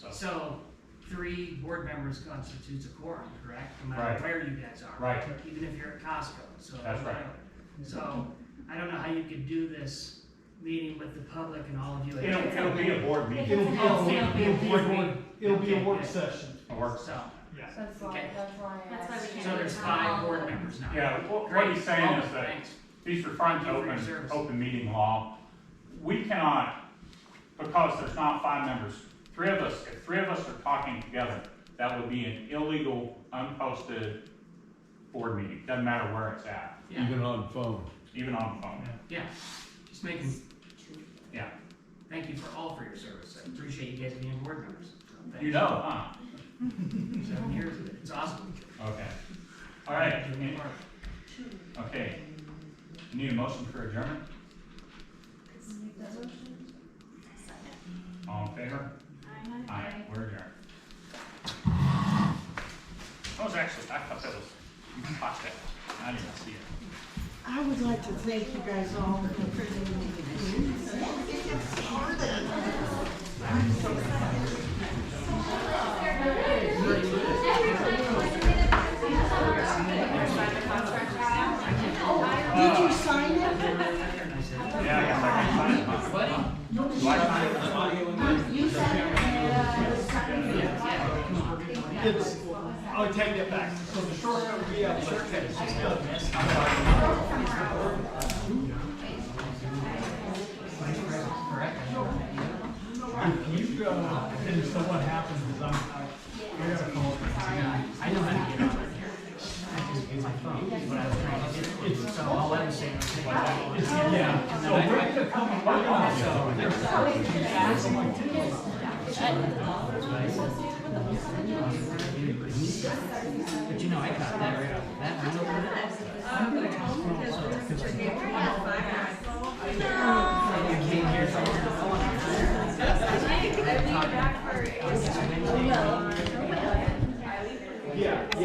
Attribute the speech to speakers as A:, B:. A: So three board members constitutes a quorum, correct? No
B: Right.
A: matter where you guys are.
B: Right.
A: Even if you're at Costco, so.
B: That's right.
A: So I don't know how you could do this meeting with the public and all of you. at
B: It'll, it'll be a board meeting,
C: It'll be,
A: Oh,
C: a-
A: yeah,
C: it'll be a
A: board
C: work,
A: meeting.
C: it'll be
A: Okay,
C: a work
A: yeah.
C: session.
B: a work
A: So,
D: That's why,
A: Okay.
D: that's why I
E: That's why we
D: asked.
E: can't
A: so there's five board members now.
B: Yeah, what, what
A: Great.
B: he's saying is
A: Welcome.
B: that
A: Thanks.
B: he's referring to
A: Thank you for your
B: open,
A: service.
B: open meeting law. We cannot, because there's not five members, three of us, if three of us are talking together, that would be an illegal, unposted board meeting, doesn't matter where it's at,
A: Yeah,
F: Even on phone.
B: even on the phone.
A: yeah, just making.
B: Yeah.
A: Thank you for all for your service. I appreciate you guys being board members. Thank
B: You know, huh?
A: Seven years of it. It's awesome.
B: Okay. All right,
A: Doing your work.
B: okay. Need a motion for adjournment? All in favor? Aye, we're adjourned. That was actually, I thought that was, you caught that. I didn't see it.
G: I would like to thank you guys all for presenting. Did you sign it?
A: I said,
B: Yeah. I saw it. Do I sign it?
D: You said, uh, it was something.
C: It's, I'll take that back. So the shortcut would be a shortcut. It's just a- You, uh, and so what happens is I'm, I, I gotta call.
A: I know how to get on it here. I just use my phone, is what I was trying to do. So I'll let him say it. Oh.
C: Yeah, so we're gonna come, we're gonna, so there's
A: But you know, I got that right off the bat. I know that. You came here, so I was like, oh, I'm-